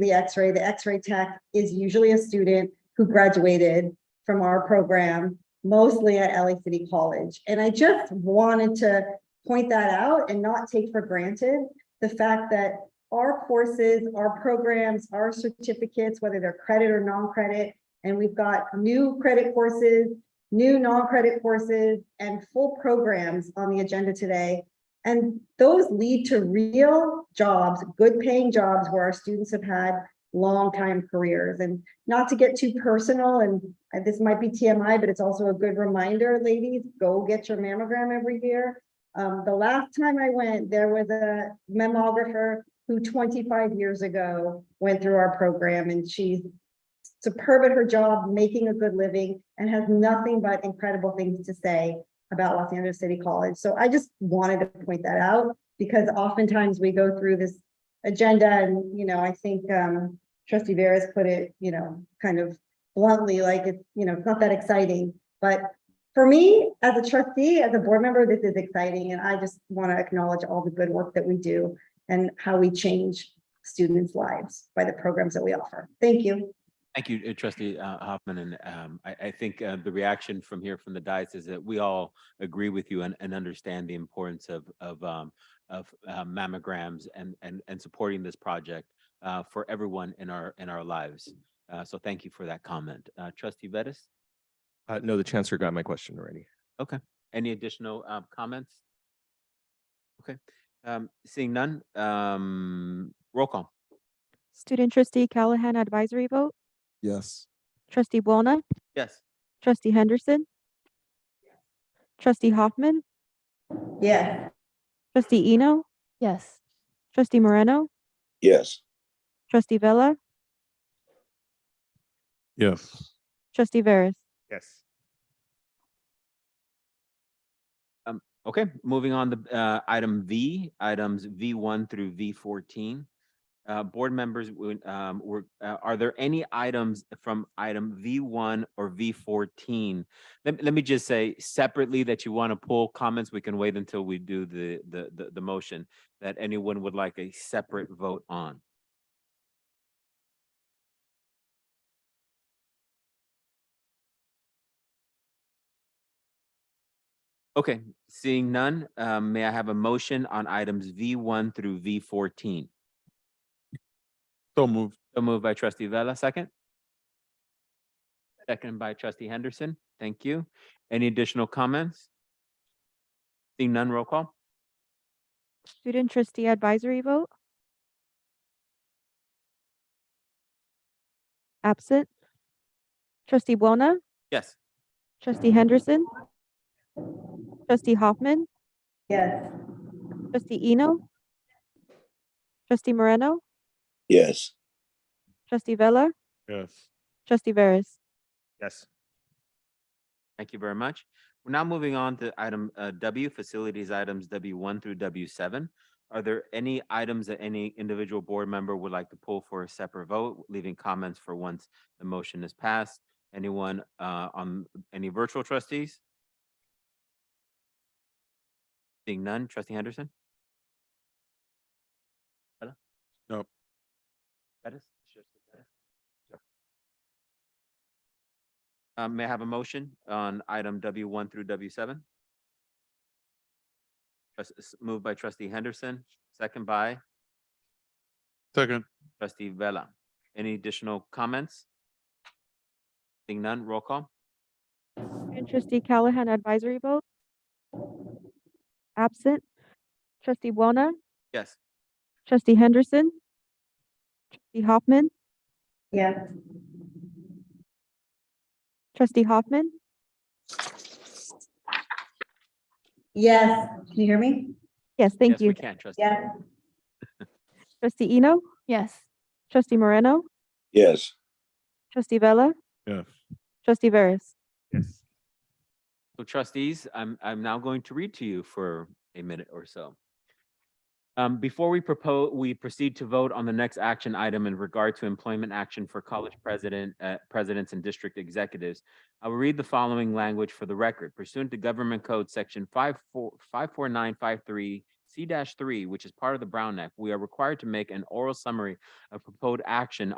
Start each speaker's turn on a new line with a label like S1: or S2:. S1: the X-ray. The X-ray tech is usually a student who graduated from our program, mostly at LA City College. And I just wanted to point that out and not take for granted the fact that our courses, our programs, our certificates, whether they're credit or non-credit, and we've got new credit courses, new non-credit courses, and full programs on the agenda today and those lead to real jobs, good paying jobs where our students have had long time careers and not to get too personal and uh, this might be TMI, but it's also a good reminder, ladies, go get your mammogram every year. Um, the last time I went, there was a mammographer who twenty-five years ago went through our program and she's superb at her job, making a good living and has nothing but incredible things to say about Los Angeles City College. So I just wanted to point that out because oftentimes we go through this agenda and, you know, I think um trustee Vera's put it, you know, kind of bluntly, like it's, you know, it's not that exciting. But for me, as a trustee, as a board member, this is exciting and I just want to acknowledge all the good work that we do and how we change students' lives by the programs that we offer. Thank you.
S2: Thank you, uh, trustee uh, Hoffman, and um, I, I think uh, the reaction from here from the dais is that we all agree with you and, and understand the importance of, of, um, of uh, mammograms and, and, and supporting this project uh, for everyone in our, in our lives. Uh, So thank you for that comment. Uh, Trustee Vettis,
S3: Uh, no, the chancellor got my question already.
S2: any additional uh, comments? Okay, um, seeing none, um, roll call.
S4: Student trustee Callahan advisory vote,
S3: Yes.
S4: trustee Buona,
S2: Yes.
S4: trustee Henderson, trustee Hoffman,
S1: Yeah.
S4: trustee Eno,
S5: Yes.
S4: trustee Moreno,
S6: Yes.
S4: trustee Vella,
S6: Yes.
S4: trustee Veras.
S6: Yes.
S2: Um, Okay, moving on to uh, item V, items V1 through V14. Uh, Board members, we- um, were- uh, are there any items from item V1 or V14? Let let me just say separately that you want to pull comments, we can wait until we do the- the the the motion that anyone would like a separate vote on. Okay, seeing none, um, may I have a motion on items V1 through V14?
S6: So moved.
S2: So moved by trustee Vella, second? Second by trustee Henderson. Thank you. Any additional comments? Seeing none, roll call?
S4: Student trustee advisory vote. Absent. Trustee Buona,
S2: Yes.
S4: trustee Henderson, trustee Hoffman,
S1: Yes.
S4: trustee Eno, trustee Moreno,
S6: Yes.
S4: trustee Vella,
S6: Yes.
S4: trustee Veras.
S6: Yes.
S2: Thank you very much. We're now moving on to item uh, W, facilities items W1 through W7. Are there any items that any individual board member would like to pull for a separate vote, leaving comments for once the motion is passed? Anyone uh, on, any virtual trustees? Seeing none, trustee Henderson? Hello?
S6: Nope.
S2: Bettis? Uh, May I have a motion on item W1 through W7? Trust- s- Moved by trustee Henderson, second by
S6: Second.
S2: trustee Vella. Any additional comments? Seeing none, roll call?
S4: Student trustee Callahan advisory vote. Absent. Trustee Buona,
S2: Yes.
S4: trustee Henderson. Trustee Hoffman,
S1: Yes.
S4: trustee Hoffman,
S1: Yes. Can you hear me?
S4: yes, thank
S2: Yes, we
S4: you.
S2: can, trustee.
S1: Yes.
S4: Trustee Eno,
S5: Yes.
S4: trustee Moreno,
S6: Yes.
S4: trustee Vella,
S6: Yes.
S4: trustee Veras.
S6: Yes.
S2: So trustees, I'm, I'm now going to read to you for a minute or so. Um, before we propose, we proceed to vote on the next action item in regard to employment action for college president, uh, presidents and district executives. I will read the following language for the record pursuant to Government Code Section five four, five four nine five three C three, which is part of the Brown Act, we are required to make an oral summary of proposed action